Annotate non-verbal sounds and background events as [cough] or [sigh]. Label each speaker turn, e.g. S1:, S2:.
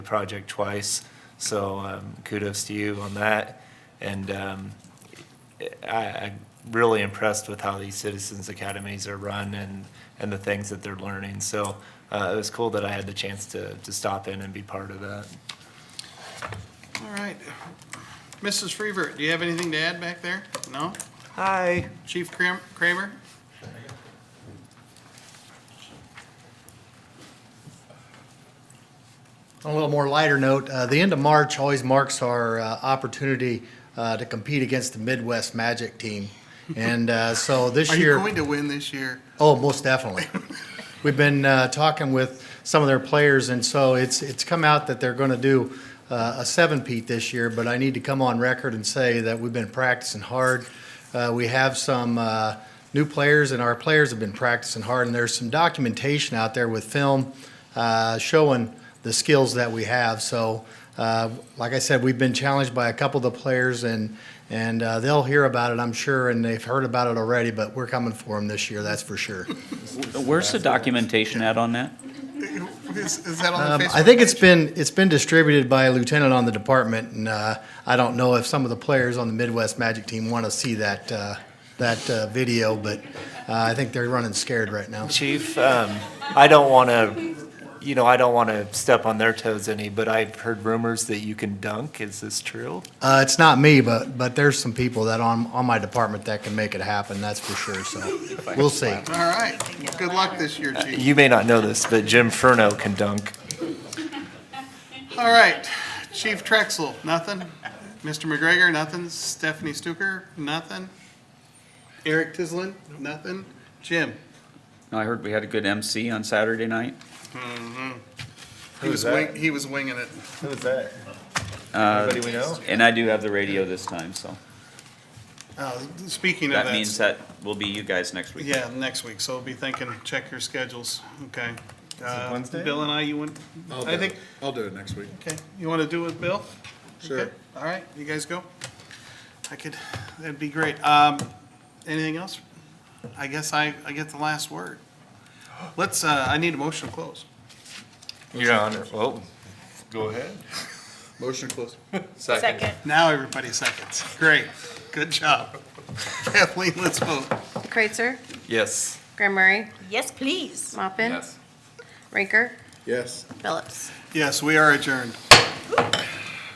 S1: project twice, so um, kudos to you on that. And um, I, I'm really impressed with how these citizens academies are run and, and the things that they're learning. So uh, it was cool that I had the chance to, to stop in and be part of that.
S2: All right. Mrs. Freevert, do you have anything to add back there? No?
S1: Hi.
S2: Chief Cram- Kramer?
S3: On a little more lighter note, uh, the end of March always marks our uh, opportunity uh, to compete against the Midwest Magic team. And uh, so
S2: [laughs]
S3: this
S2: Are you
S3: year.
S2: going to win this year?
S3: Oh, most definitely. We've been uh, talking with some of their players, and so it's, it's come out that they're going to do uh, a seven-peat this year, but I need to come on record and say that we've been practicing hard. Uh, We have some uh, new players, and our players have been practicing hard, and there's some documentation out there with film uh, showing the skills that we have. So, uh, like I said, we've been challenged by a couple of the players, and and uh, they'll hear about it, I'm sure, and they've heard about it already. But we're coming for them this year, that's for sure.
S4: Where's the documentation at on that?
S2: Is, is that on
S3: Um,
S2: the Facebook?
S3: I think it's
S2: page?
S3: been it's been distributed by a lieutenant on the department, and uh, I don't know if some of the players on the Midwest Magic team want to see that uh, that uh, video, but uh, I think they're running scared right now.
S1: Chief, um, I don't want to, you know, I don't want to step on their toes any, but I've heard rumors that you can dunk. Is this true?
S3: Uh, it's not me, but but there's some people that on on my department that can make it happen. That's for sure. So we'll see.
S2: All right. Good luck this year, Chief.
S1: You may not know this, but Jim Furno can dunk.
S2: All right. Chief Trexel, nothing? Mr. McGregor, nothing? Stephanie Stuker, nothing? Eric Tislin, nothing? Jim?
S4: No, I heard we had a good MC on Saturday night.
S2: He was wing, he was winging it.
S1: Who is that?
S4: Uh,
S1: Anybody we know?
S4: And I do have the radio this time, so
S2: Uh, Speaking of
S4: that
S2: that,
S4: means that will be you guys next week.
S2: yeah, next week. So be thinking, check your schedules. Okay. Uh,
S1: Wednesday?
S2: Bill and I, you went,
S3: Oh,
S5: I'll
S2: I
S5: do
S2: think,
S5: it. I'll do it next week.
S2: Okay, you want to do it, Bill?
S5: Sure.
S2: Okay, All right, you guys go. I could, that'd be great. Um, anything else? I guess I, I get the last word. Let's, uh, I need a motion to close.
S1: Your Honor. Well, go ahead.
S5: Motion to close.
S6: Second.
S2: Now everybody seconds. Great, good job. [laughs] Kathleen, let's vote.
S7: Kreitzer,
S1: Yes.
S7: Graham Murray,
S6: Yes, please.
S7: Mopin, Rinker,
S5: Yes.
S7: Phillips.
S2: Yes, we are adjourned.